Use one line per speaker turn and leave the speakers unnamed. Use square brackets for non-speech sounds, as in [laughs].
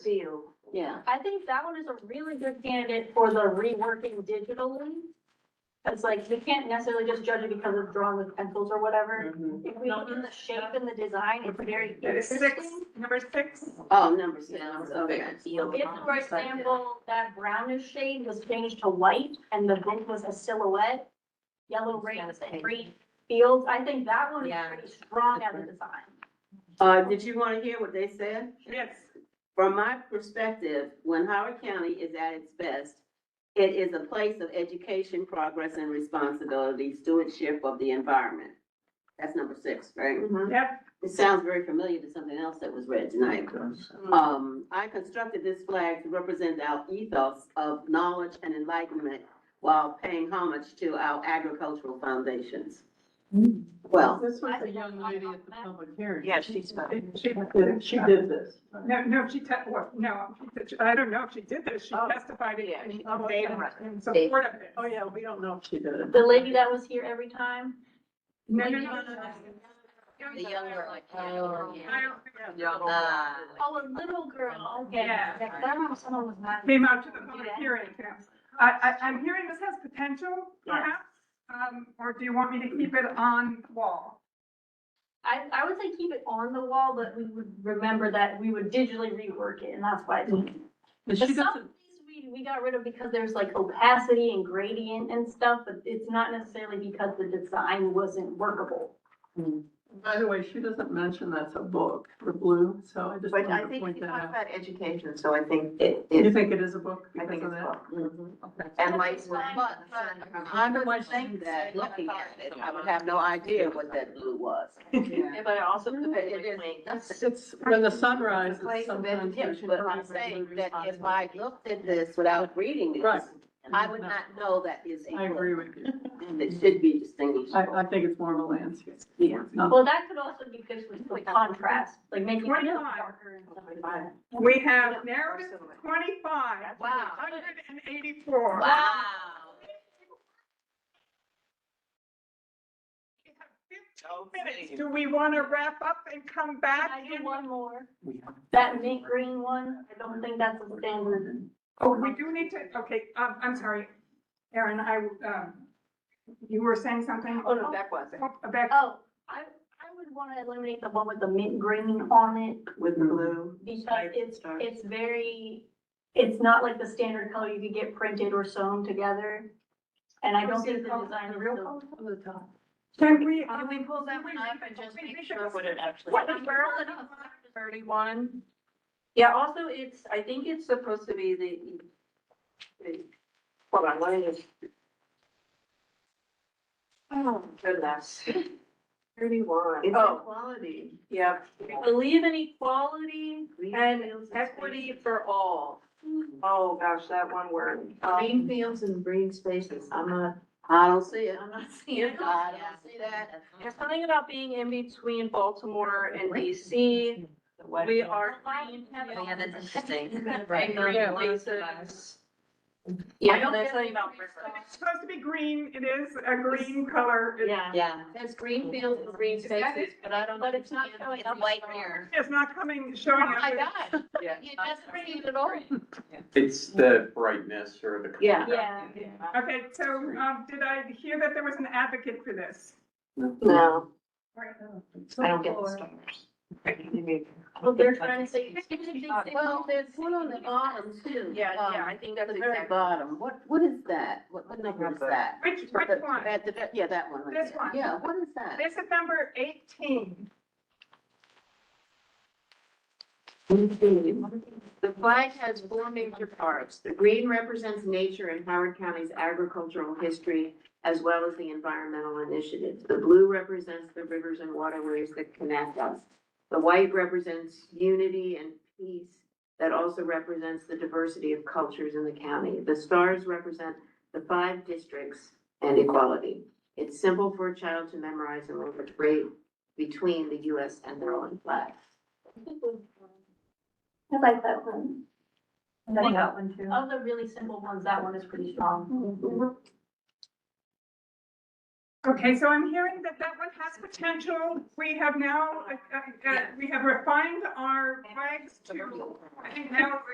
Yeah.
I think that one is a really good candidate for the reworking digitally. Cause like, we can't necessarily just judge it because it's drawn with pencils or whatever.
Mm-hmm.
If we look in the shape and the design, it's very
That is six,
interesting.
number six.
Oh, number six,
Yeah, it's a
okay.
bigger field.
If, for example, that brownish shade was changed to white and the book was a silhouette, yellow rings and green fields, I think that one is
Yeah.
pretty strong as a design.
Uh, did you wanna hear what they said?
Yes.
From my perspective, when Howard County is at its best, it is a place of education, progress, and responsibility, stewardship of the environment. That's number six, right?
Yep.
It sounds very familiar to something else that was read tonight. Um, I constructed this flag to represent our ethos of knowledge and enlightenment while paying homage to our agricultural foundations. Well,
This was the young lady at the public hearing.
Yeah, she spoke.
She,
She did this.
no, no, she, te- well, no, I don't know if she did this. She
Oh,
testified in,
yeah, she-
in-
they-
in support of it.
Oh, yeah, we don't know if she did it.
The lady that was here every time,
No, no, no, no, no.
The younger, like,
I don't think that-
oh, a little girl, okay.
Yeah.
That one, someone was not.
Came out to the public hearing. yeah. I, I, I'm hearing this has potential perhaps, um, or do you want me to keep it on wall?
I, I would say keep it on the wall, but we would remember that we would digitally rework it, and that's why. it's-
But
But
she
some of
doesn't,
these we, we got rid of because there's like opacity and gradient and stuff, but it's not necessarily because the design wasn't workable.
by the way, she doesn't mention that's a book for blue, so I just
But I
wanted to
think
point
you
that
talk
out.
about education, so I think it
You
is,
think it is a book
I think
because of
it's
that?
well.
Okay.
And like,
But-
but,
I'm the one saying that, looking at it, I would have no idea what that blue was.
But I also. It is,
It's,
that's
it's when the sun rises
Place of
sometimes.
education.
But
there's
I'm
progress and
saying that if I
responsibility.
looked at this without reading
Right.
this, I would not know that is a
I agree
blue.
with you.
[laughs]
And it should be distinguished.
I, I think it's more of a landscape.
Yeah.
It's not-
Well, that could also be fixed with like, contrast, like making it
25.
darker and stuff like that.
We have narrowed it to twenty-five.
Wow.
Hundred and eighty-four.
Wow.
We have 15 minutes. Do we want to wrap up and come
Can
back?
I do
in-
one more? That mint green one, I don't think that's a standard.
Oh, we do need to, okay, um, I'm sorry, Erin, I, um, you were saying something?
Oh, no, that wasn't.
Oh, Back,
Oh, I, I would want to eliminate the one with the mint green on it
With blue.
because it's, it's very, it's not like the standard color you could get printed or sewn together. And I don't think the design is so.
Over the top.
can we?
Can we pull that one up and just make sure what it actually?
What number?
Thirty-one. Yeah, also it's, I think it's supposed to be the. the- Hold on, let me just. Oh, goodness. Thirty-one.
It's
Oh,
equality.
yeah. Believe in equality and equity for all. Oh, gosh, that one word. Um,
Green fields and green spaces, I'm not,
I don't see it.
I'm not
[laughs]
you
seeing.
know,
I don't see that.
There's something about being in between Baltimore and DC. We are green.
Oh, yeah, that's
interesting.
Right.
And green places. Yeah,
don't
there's
get
something
the
about.
green
Bristol.
It's supposed to be green, it is a green color, It-
Yeah.
Yeah, there's green fields and green spaces, but I don't.
But it's not
understand-
showing
it's
up
White
on-
here.
it's not coming, showing
Oh
up.
my God,
Yeah.
you just bring it at all.
It's the brightness or the.
Yeah.
Yeah.
Okay, so, um, did I hear that there was an advocate for this?
No.
Right.
I don't get the
Well, they're trying to say.
Well, there's one on the bottom too.
Yeah,
Um,
yeah, I think that's
The very
exactly.
bottom. What, what is that? What, what number is that?
Which, which one?
That- that- Yeah, that one. right
This
there.
one.
Yeah, what is that?
This is number eighteen.
The flag has four major parts. The green represents nature and Howard County's agricultural history, as well as the environmental initiatives. The blue represents the rivers and waterways that connect us. The white represents unity and peace that also represents the diversity of cultures in the county. The stars represent the five districts and equality. It's simple for a child to memorize and learn the grade between the US and their own flag.
I like that one.
like that one too.
Of the really simple ones, that one is pretty strong.
Okay, so I'm hearing that that one has potential. We have now, uh, uh, uh, we have refined our flags to, I think now